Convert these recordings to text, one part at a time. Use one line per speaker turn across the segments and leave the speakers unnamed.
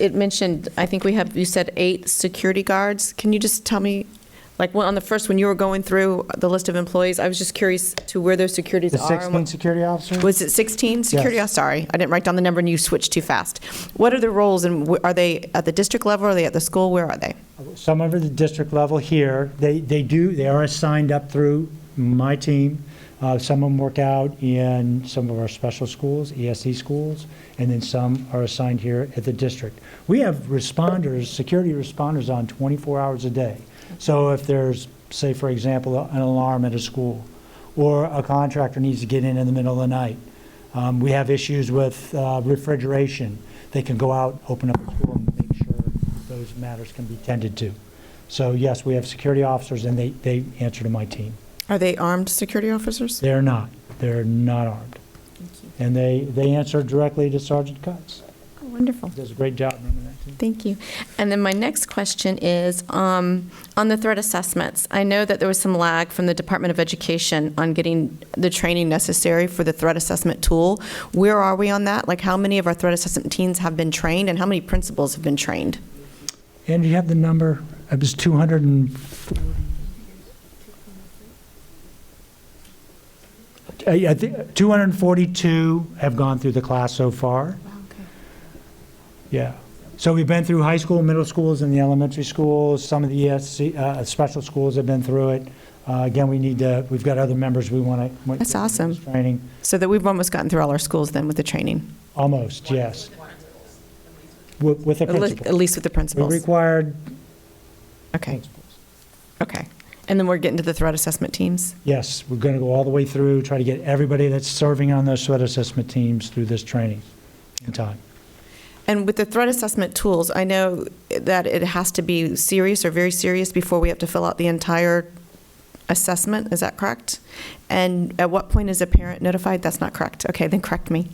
it mentioned, I think we have, you said eight security guards. Can you just tell me, like, when- on the first, when you were going through the list of employees, I was just curious to where those securities
The
are. and what-
16 security officer?
Was it 16 security?
Yes.
I'm sorry, I didn't write down the number and you switched too fast. What are the roles and wh- are they at the district level, are they at the school, where are they?
Some of the district level here, they, they do, they are assigned up through my team. Uh, Some of them work out in some of our special schools, ESE schools, and then some are assigned here at the district. We have responders, security responders on 24 hours a day. So if there's, say, for example, an alarm at a school, or a contractor needs to get in in the middle of the night, um, we have issues with uh, refrigeration, they can go out, open up the school, and make sure those matters can be tended to. So yes, we have security officers, and they, they answer to my team.
Are they armed security officers?
They're not, they're not armed. And they, they answer directly to Sergeant Cutts.
Oh, Wonderful.
Does a great job running that team.
Thank you. And then my next question is, um, on the threat assessments, I know that there was some lag from the Department of Education on getting the training necessary for the threat assessment tool. Where are we on that? Like, how many of our threat assessment teams have been trained, and how many principals have been trained?
And you have the number, it was 200 and... Uh, yeah, I think 242 have gone through the class so far. Yeah. So we've been through high school, middle schools, and the elementary schools. Some of the ESC, uh, special schools have been through it. Uh, Again, we need to, we've got other members we want to.
That's awesome.
Training,
So that we've almost gotten through all our schools then with the training,
almost, yes. With with the
at least at
principal.
least with the
We
principals.
required,
Okay, okay. And then we're getting to the threat assessment teams?
yes, we're going to go all the way through, try to get everybody that's serving on those threat assessment teams through this training in time.
And with the threat assessment tools, I know that it has to be serious or very serious before we have to fill out the entire assessment, is that correct? And at what point is a parent notified? That's not correct. Okay, then correct me.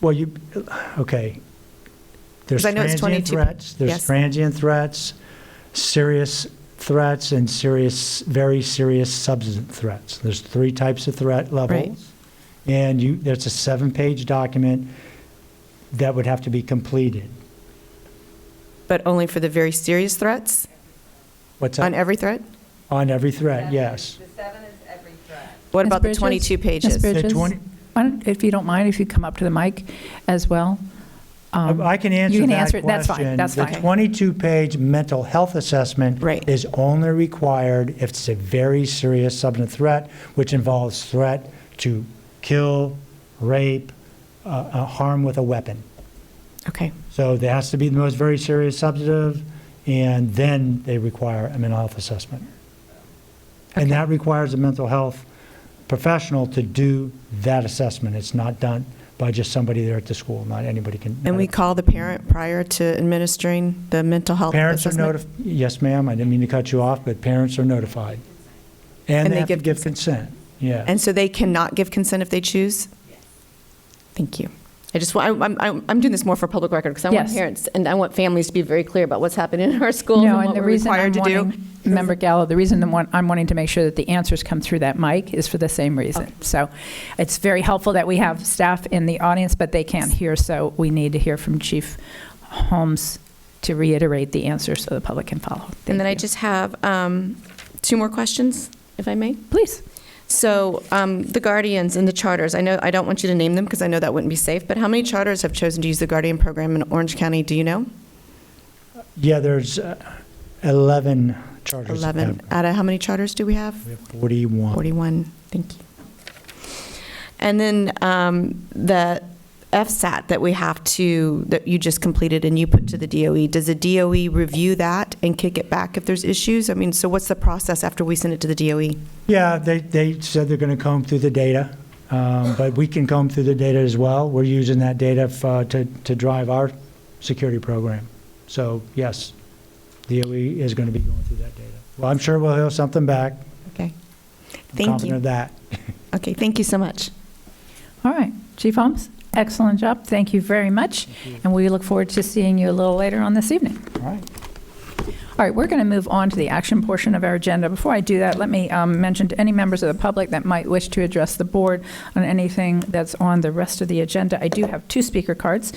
Well, you, okay. There's
'Cause I know it's
transient
22
threats,
Yes.
there's transient threats, serious threats, and serious, very serious substance threats. There's three types of threat levels. And you, there's a seven-page document that would have to be completed.
But only for the very serious threats,
What's
on
that?
every threat?
On every threat, yes.
The seven is every threat.
What
Ms.
about the
Bridges?
22
Ms.
pages?
The
Bridges?
20
Why don't- If you don't mind, if you come up to the mic as well. Um,
I can answer that question.
You can answer it, that's fine, that's
The
fine.
22-page mental health assessment
Right.
is only required if it's a very serious substantive threat, which involves threat to kill, rape, uh, uh, harm with a weapon.
Okay,
So there has to be the most very serious substantive, and then they require a mental health assessment. And that requires a mental health professional to do that assessment. It's not done by just somebody there at the school, not anybody can.
and we call the parent prior to administering the mental health
Parents are
assessment?
notified, yes, ma'am, I didn't mean to cut you off, but parents are notified. And they have to give consent, yeah.
And so they cannot give consent if they choose? Thank you. I just, wa- I- I'm, I'm I'm doing this more for public record because I want
Yes.
parents and I want families to be very clear about what's happening in our schools and
No,
what
and the
we're
reason I'm
required to do.
wanting, Member Gallo, the reason I'm want- I'm wanting to make sure that the answers come through that mic is for the same reason. So it's very helpful that we have staff in the audience, but they can't hear, so we need to hear from Chief Holmes to reiterate the answer so the public can follow.
And then I
Thank you.
just have um, two more questions, if I may.
Please.
So um, the guardians and the charters, I know, I don't want you to name them because I know that wouldn't be safe, but how many charters have chosen to use the guardian program in Orange County, do you know?
Yeah, there's uh, 11 charges.
11,
uh,
out of how many charters do we have?
We have 41.
41, thank you. And then um, the FSAT that we have to, that you just completed and you put to the DOE, does the DOE review that and kick it back if there's issues? I mean, so what's the process after we send it to the E? DOE?
Yeah, they, they said they're going to comb through the data, um, but we can comb through the data as well. We're using that data f- uh, to, to drive our security program. So yes, DOE is going to be going through that data. Well, I'm sure we'll hear something back.
Okay.
I'm
Thank
confident of
you.
that.
Okay, thank you so much.
All right, Chief Holmes, excellent job, thank you very much, and we look forward to seeing you a little later on this evening.
All right.
All right, we're going to move on to the action portion of our agenda. Before I do that, let me um, mention to any members of the public that might wish to address the board on anything that's on the rest of the agenda. I do have two speaker cards.